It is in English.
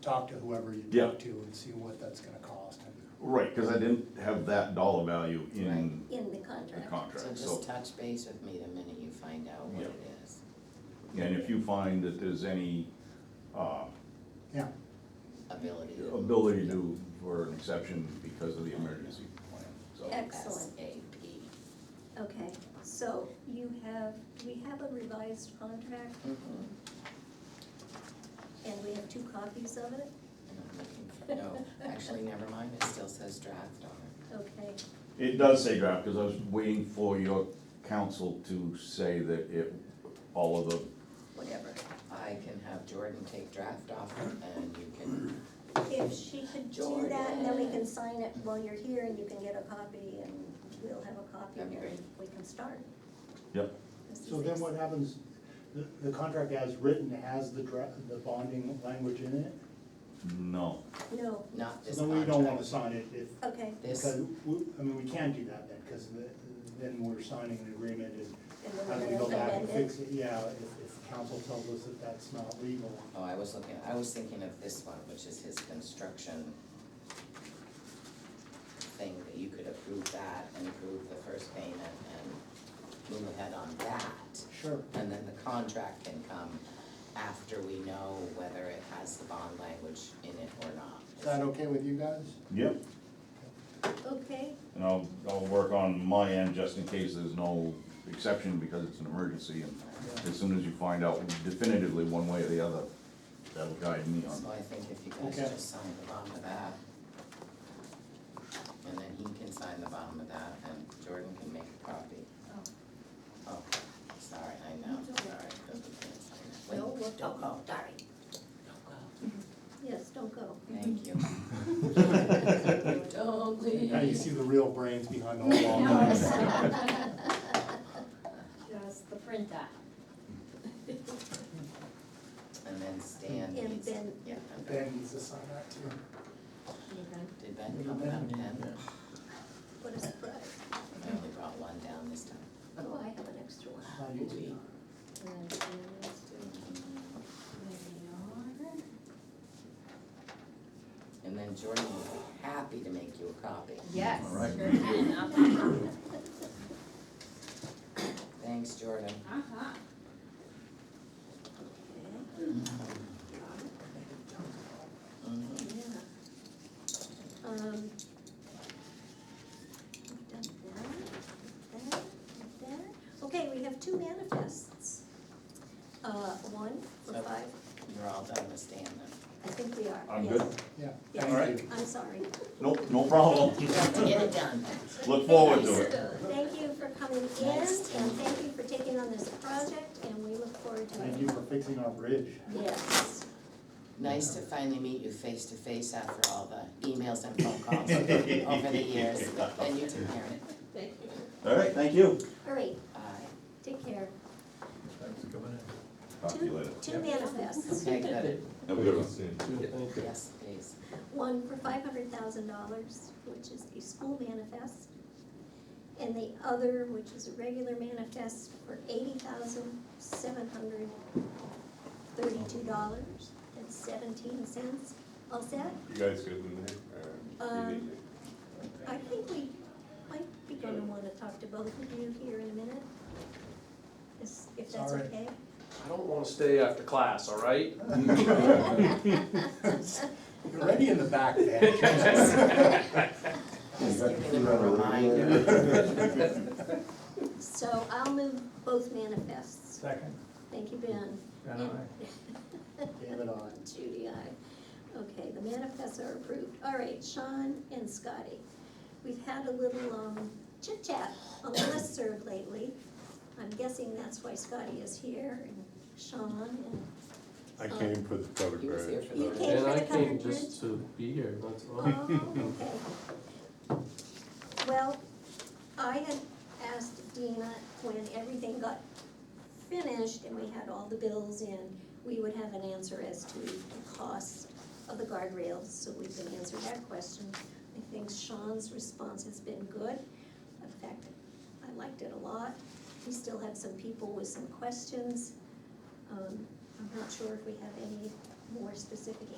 talk to whoever you Yeah. talk to and see what that's gonna cost. and- Right, cause I didn't have that dollar value right, in in the the contract. contract, So so. just touch base with me the minute you find out what Yeah. it is. And if you find that there's any, uh, Yeah, Ability. to- ability to, for an exception because of the emergency plan, so. Excellent. SAP. Okay, so you have, we have a revised contract Mhm. and we have two copies of it, And I'm looking for, no, actually, never mind, it still says draft on it. okay? It does say draft, cause I was waiting for your counsel to say that it, all of the, Whatever. I can have Jordan take draft off and you can, If she could do that, and then we can sign it while you're here and you can get a copy and we'll have a copy That'd be and great. we can start. yep, This is So then what ex- happens, the, the contract as written has the dra, the bonding language in it? no. No, not this So then we don't wanna contract. sign it if, okay, This, because, we- I mean, we can't do that then, because then we're signing an agreement and and then as we're we go gonna back and amend it. fix it, yeah, if, if council tells us that that's not legal. oh, I was looking, I was thinking of this one, which is his construction thing, that you could approve that and approve the first payment and move ahead on that. Sure. And then the contract can come after we know whether it has the bond language in it or not. Is that okay with you guys? Yep. Okay, And I'll, I'll work on my end just in case there's no exception because it's an emergency and as soon as you find out definitively one way or the other, that'll guide me on. So I think if you guys Okay. just sign the bottom of that. And then he can sign the bottom of that and Jordan can make a copy. Oh, sorry, I know, It's okay. sorry, because we can't sign it. No, Wait, we'll- don't go, sorry. Don't go. yes, don't go. Thank you. Don't leave. Now you see the real brains behind the No, whole law. it's- Just the printer. And then Stan And needs, Ben. yeah, and Ben. Ben needs to sign that too. Did Ben come about ten? What a surprise. I only brought one down this time. Oh, I have an extra one. How do you do that? And then the others too. There And then Jordan was happy to make you a copy. they are. Yes, All right. sure can, uh-huh, Thanks, Jordan. uh-huh. Mm-hmm. Mhm. Yeah. Um. We've done that, that, that. Okay, we have two manifests. Uh, one for Yep. five, You're all done with Stan then. I think we are, I'm yes. good. Yeah, Yes. All right. I'm sorry. Nope, no problem. You have to get it done. Look forward to it. Thank you for coming in, and Thanks, Tim. thank you for taking on this project, and we look forward to it. thank you for fixing our bridge. Yes. Nice to finally meet you face to face after all the emails and phone calls over the years. And you took care of it. Uh, Thank you. All right, thank you. All right, Aye. take care. Thanks for coming in. Talk to you later. Two manifests, Okay, good. Have a good one. Yes, please. one for five hundred thousand dollars, which is a school manifest, and the other, which is a regular manifest, for eighty thousand seven hundred thirty-two dollars and seventeen cents. All set? You guys good in there? or you Um, need I think we might be gonna wanna talk to both of you here in a minute. Is- If that's All right. okay? I don't want to stay after class, all right? You're ready in the back, Ben. Just giving him a reminder. So I'll move both manifests. Second. Thank you, Ben. David, aye. Judy, aye. Okay, the manifests are approved. All right, Sean and Scotty. We've had a little um, chit chat on the listserv lately. I'm guessing that's why Scotty is here and Sean I came for the covered He was here bridge. for You the. came And I for the came covered bridge? just to be here, that's all. Oh, okay. Well, I had asked Dina when everything got finished and we had all the bills in, we would have an answer as to the cost of the guardrails, so we can answer that question. I think Sean's response has been good. In fact, I liked it a lot. We still have some people with some questions. Um, I'm not sure if we have any more specific